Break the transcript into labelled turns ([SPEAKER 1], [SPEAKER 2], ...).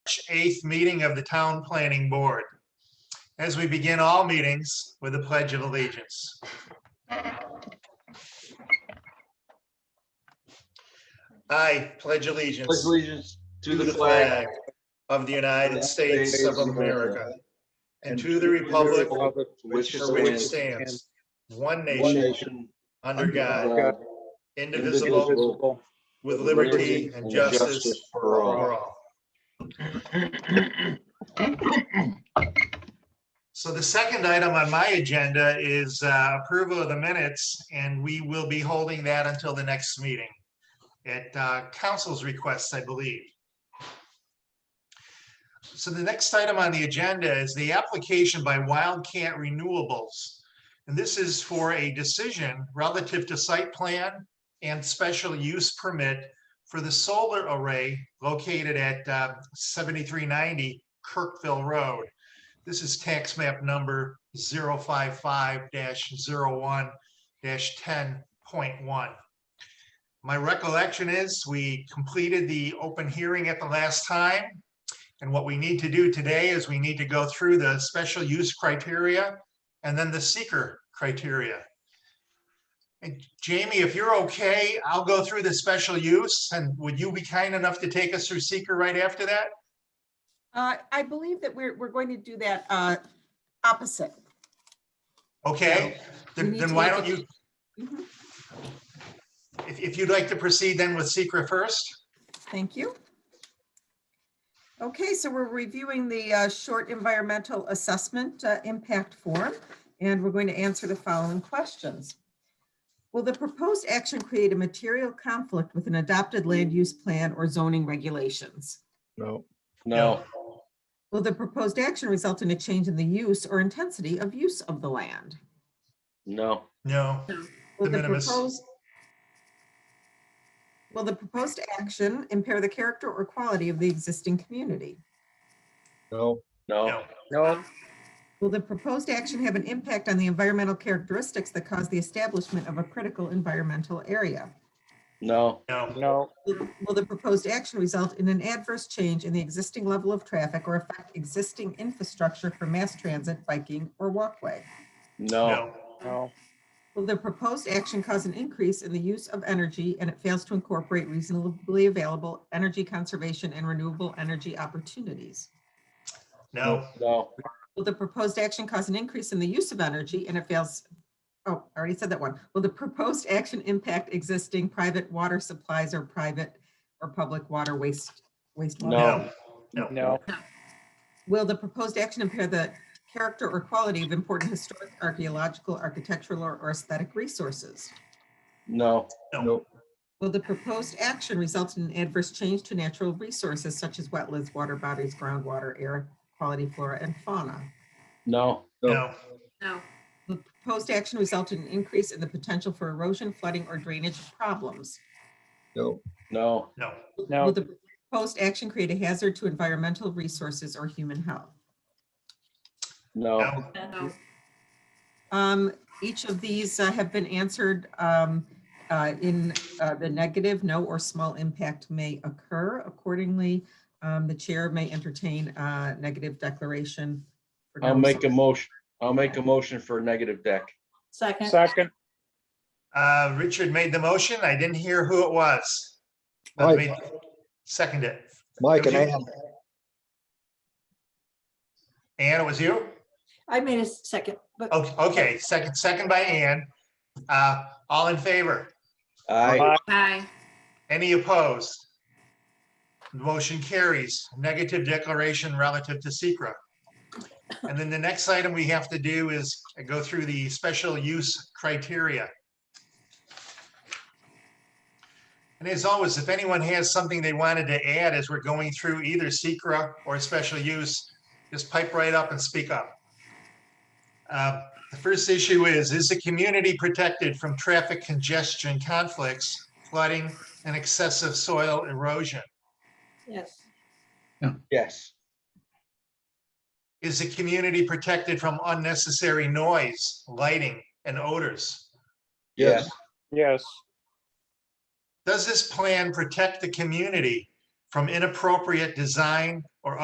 [SPEAKER 1] March 8th meeting of the Town Planning Board. As we begin all meetings with the Pledge of Allegiance. I pledge
[SPEAKER 2] Pledge
[SPEAKER 1] allegiance
[SPEAKER 2] allegiance
[SPEAKER 1] to the flag of the United States of America and to the republic
[SPEAKER 2] which
[SPEAKER 1] for which stands one nation
[SPEAKER 2] nation,
[SPEAKER 1] under God,
[SPEAKER 2] God,
[SPEAKER 1] indivisible, with liberty and justice
[SPEAKER 2] for
[SPEAKER 1] for all. So the second item on my agenda is uh, approval of the minutes, and we will be holding that until the next meeting at uh, council's request, I believe. So the next item on the agenda is the application by Wildcat Renewables. And this is for a decision relative to site plan and special use permit for the solar array located at uh, 7390 Kirkville Road. This is tax map number 055-01-10.1. My recollection is we completed the open hearing at the last time. And what we need to do today is we need to go through the special use criteria and then the seeker criteria. And Jamie, if you're okay, I'll go through the special use and would you be kind enough to take us through seeker right after that?
[SPEAKER 3] Uh, I believe that we're, we're going to do that uh, opposite.
[SPEAKER 1] Okay,
[SPEAKER 3] we
[SPEAKER 1] then
[SPEAKER 3] need
[SPEAKER 1] then
[SPEAKER 3] to
[SPEAKER 1] why
[SPEAKER 3] look
[SPEAKER 1] don't you?
[SPEAKER 3] at Mhm.
[SPEAKER 1] If, if you'd like to proceed then with seeker first,
[SPEAKER 3] Thank you. Okay, so we're reviewing the uh, short environmental assessment uh, impact form, and we're going to answer the following questions. Will the proposed action create a material conflict with an adopted land use plan or zoning regulations?
[SPEAKER 4] No,
[SPEAKER 2] No,
[SPEAKER 3] Will the proposed action result in a change in the use or intensity of use of the land?
[SPEAKER 2] no,
[SPEAKER 1] no,
[SPEAKER 3] Will
[SPEAKER 1] De
[SPEAKER 3] the
[SPEAKER 1] minimis.
[SPEAKER 3] proposed- Will the proposed action impair the character or quality of the existing community?
[SPEAKER 4] no,
[SPEAKER 2] no,
[SPEAKER 1] no,
[SPEAKER 5] No,
[SPEAKER 3] Will the proposed action have an impact on the environmental characteristics that cause the establishment of a critical environmental area?
[SPEAKER 2] no,
[SPEAKER 1] no,
[SPEAKER 5] no,
[SPEAKER 3] Will will the proposed action result in an adverse change in the existing level of traffic or affect existing infrastructure for mass transit, biking, or walkway?
[SPEAKER 2] no,
[SPEAKER 1] no,
[SPEAKER 5] no,
[SPEAKER 3] Will the proposed action cause an increase in the use of energy and it fails to incorporate reasonably available energy conservation and renewable energy opportunities?
[SPEAKER 1] no,
[SPEAKER 2] no,
[SPEAKER 3] Will the proposed action cause an increase in the use of energy and it fails? Oh, I already said that one. Will the proposed action impact existing private water supplies or private or public water waste wastewater?
[SPEAKER 1] no,
[SPEAKER 2] No.
[SPEAKER 5] no,
[SPEAKER 3] Will the proposed action impair the character or quality of important historic, archaeological, architectural, or or aesthetic resources?
[SPEAKER 2] no,
[SPEAKER 1] no,
[SPEAKER 3] Will the proposed action result in an adverse change to natural resources such as wetlands, water bodies, groundwater, air quality, flora, and fauna?
[SPEAKER 2] no,
[SPEAKER 1] no,
[SPEAKER 3] Will The proposed action result in an increase in the potential for erosion, flooding, or drainage problems?
[SPEAKER 4] no,
[SPEAKER 2] no,
[SPEAKER 1] no,
[SPEAKER 3] Will
[SPEAKER 5] no,
[SPEAKER 3] the proposed action create a hazard to environmental resources or human health?
[SPEAKER 2] no,
[SPEAKER 1] no,
[SPEAKER 3] Um, each of these uh, have been answered, um, uh, in, uh, the negative, no or small impact may occur. Accordingly, um, the chair may entertain, uh, negative declaration. for
[SPEAKER 2] I'll
[SPEAKER 3] no
[SPEAKER 2] make a
[SPEAKER 3] small-
[SPEAKER 2] motion, I'll make a motion for a negative deck.
[SPEAKER 6] Second,
[SPEAKER 5] second,
[SPEAKER 1] Uh, Richard made the motion. I didn't hear who it was.
[SPEAKER 4] Mike.
[SPEAKER 1] Second it.
[SPEAKER 4] Mike and
[SPEAKER 1] Okay.
[SPEAKER 4] Ann,
[SPEAKER 1] Ann, it was you?
[SPEAKER 6] I made a second, but
[SPEAKER 1] Okay, okay, second, second by Ann. Uh, all in favor?
[SPEAKER 2] Aye,
[SPEAKER 1] Any opposed? Motion carries, negative declaration relative to Secra. And then the next item we have to do is go through the special use criteria. And as always, if anyone has something they wanted to add as we're going through either Secra or special use, just pipe right up and speak up. Uh, The first issue is, is the community protected from traffic congestion conflicts, flooding, and excessive soil erosion?
[SPEAKER 6] yes,
[SPEAKER 2] yes,
[SPEAKER 1] Is the community protected from unnecessary noise, lighting, and odors?
[SPEAKER 2] yes,
[SPEAKER 5] yes,
[SPEAKER 1] Does this plan protect the community from inappropriate design or